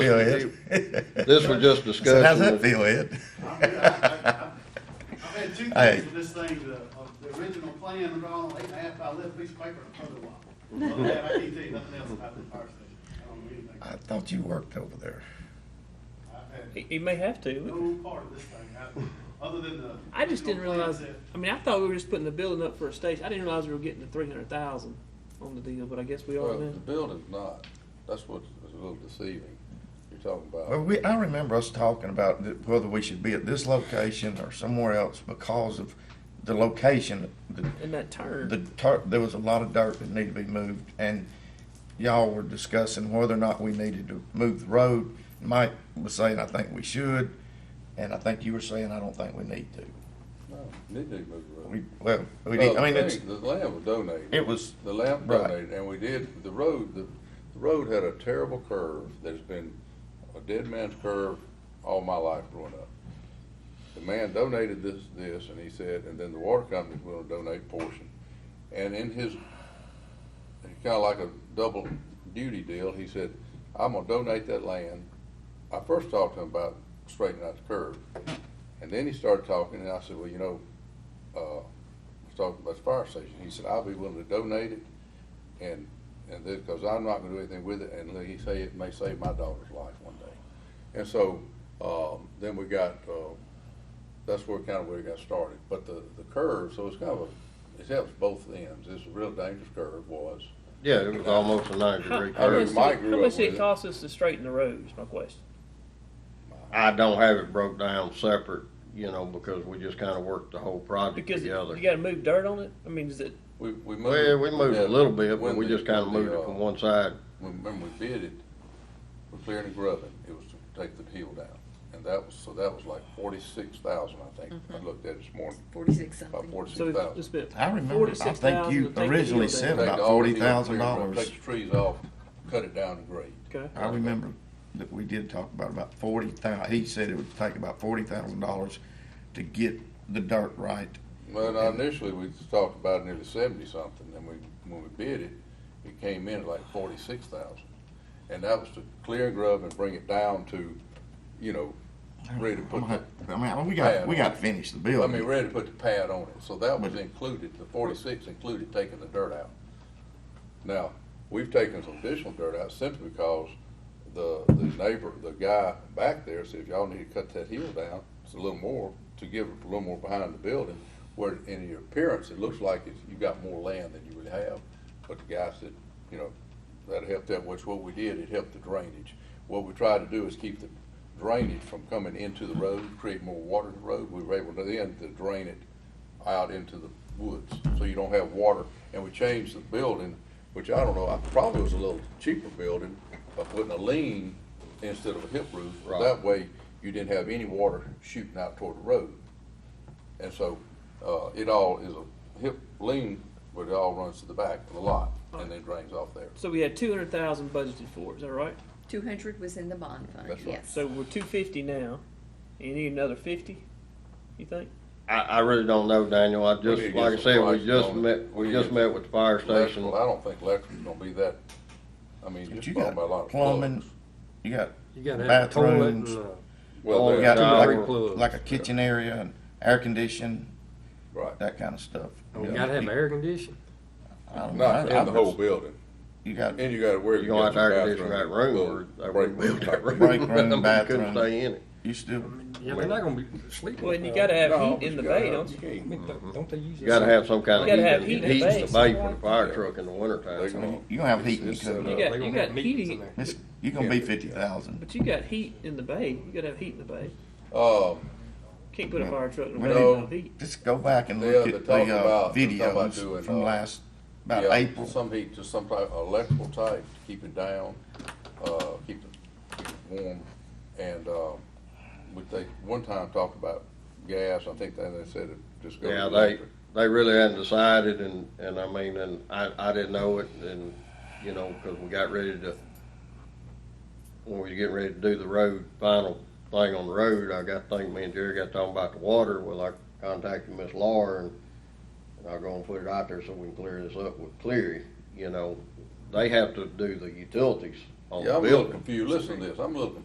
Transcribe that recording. Feel it? This was just So how's that discussing, feel, Ed? I mean, I- I- I've had two Hey. things with this thing, the, of the original plan, and all, eight and a half by eleven piece of paper, and a photo op. Other than that, I can't tell you nothing else about the fire station, I don't know anything, I thought you worked over there. I've had He, he may have to. no part of this thing, I, other than the. I just didn't original realize. plans I mean, I thought we were just putting the building up for a station. I didn't realize we were getting the three hundred thousand on the deal, but I guess we are well, now. the building's not, that's what's a little deceiving, you're talking Well, about. Uh, we, I remember us talking about th- whether we should be at this location or somewhere else because of the location. The, And that turn. the tar, there was a lot of dirt that needed to be moved, and y'all were discussing whether or not we needed to move the road. Mike was saying, I think we should, and I think you were saying, I don't think we need to. No, Need to move the road. We, well, we Well, did, I mean, the it's, thing, The land was donated. it was, The land Right. donated, and we did, the road, the, the road had a terrible curve that's been a dead man's curve all my life growing up. The man donated this, this, and he said, and then the water company's gonna donate portion. And in his, it's kinda like a double duty deal, he said, I'm gonna donate that land. I first talked to him about straightening out the curve, and then he started talking, and I said, well, you know, uh, was talking about the fire station. He said, I'll be willing to donate it and, and this, cause I'm not gonna do anything with it and he say it may save my daughter's life one day. And so, um, then we got, uh, that's where kind of where it got started. But the, the curve, so it's kind of a, it helps both ends. It's a real dangerous curve was. Yeah, it was almost a ninety degree how much, heard curve. did- Mike how grew up much did with it it. cost us to straighten the roads? My question. I don't have it broke down separate, you know, because we just kinda worked the whole project Because it- together. you got to move dirt on it. I mean, is it? We, we moved. Well, we moved a yeah, little bit, but when we the- just kinda when the, moved it uh, from one side. when, when we bid it, for clearing and grubbing, it was to take the hill down. And that was, so that was like forty-six thousand, I think. I looked at it this morning, Forty-six about something. So forty-six it's, thousand. it's been I remember, I forty-six think thousand. you originally said about forty thousand dollars. Take the trees off, cut it down and grade. Okay. I remember that we did talk about about forty thousand, he said it would take about forty thousand dollars to get the dirt right. Well, now initially, we talked about nearly seventy-something, and we, when we bid it, it came in at like forty-six thousand. And that was to clear and grub and bring it down to, you know, ready to I'm put, gonna have- the- I mean, we got, we got to finish the I mean, building. ready to put the pad on it, so that was But- included, the forty-six included taking the dirt out. Now, we've taken some additional dirt out simply because the, the neighbor, the guy back there said, if y'all need to cut that hill down, it's a little more, to give it a little more behind the building, where in your appearance, it looks like it's, you got more land than you would have, but the guy said, you know, that helped that, which what we did, it helped the drainage. What we tried to do is keep the drainage from coming into the road, create more water in the road, we were able to then to drain it out into the woods, so you don't have water. And we changed the building, which I don't know, I probably was a little cheaper building, by putting a lean instead of a hip roof. Right. That way, you didn't have any water shooting out toward the road. And so, uh, it all is a hip lean, but it all runs to the back of the lot, and then drains off there. So we had two hundred thousand budgeted for. it, Is that right? Two hundred was in the bond fund, That's right. yes. So we're two fifty now. You need another fifty. You think? I, I really don't know, Daniel. I need to just, get like I some said, we prices just on it. met, we We just need- met with the fire Electrical, station. I don't think electric's gonna be that, I mean, But just you talking about a lot got of plumbing, plugs. you got You gotta have a toilet and Bathrooms. a- Well, Oh, You there- got Yeah. like, Plugs. like a kitchen area and air condition, Right. that kind of stuff. and you gotta have air conditioning. I don't know. Not I- in I the was- whole building. You got And you gotta wear. You're gonna have to air condition that room or they rebuild that room. I mean, we bathroom. Couldn't stay in it. you still Yeah, they're not gonna be sleeping. Well, and you got to have No, heat in the you bay, gotta- don't you? you can't. I mean, don't- Don't they use? You gotta have some kind You gotta of have heat, heat in- in the heat in the base. bay for the fire Yeah. truck in the wintertime. They're gonna- you gonna have heat, it's- you it's, can- uh, You got- They're you gonna got have meetings heating. in there. it's, you gonna be fifty thousand. But you got heat in the bay. You got to have heat in the bay. Uh, Can't put a fire truck in a bay No. without heat. Just go back and They look are- at the they're talking uh, about- they're talking about videos doing, from uh, last, about yeah, April. Some heat, just some type of electrical type to keep it down, uh, keep it, keep it warm. And, um, we, they, one time talked about gas, I think they, they said it, just go. Yeah, with they, electric. they really hadn't decided and, and I mean, and I, I didn't know it and, you know, cause we got ready to, when we were getting ready to do the road, final thing on the road, I got, think me and Jerry got talking about the water, well, I contacted Miss Laura and, and I'll go and put it out there so we can clear this up with Cleary, you know. They have to do the utilities on the Yeah, I'm a little building. confused, listen to this, I'm a little confused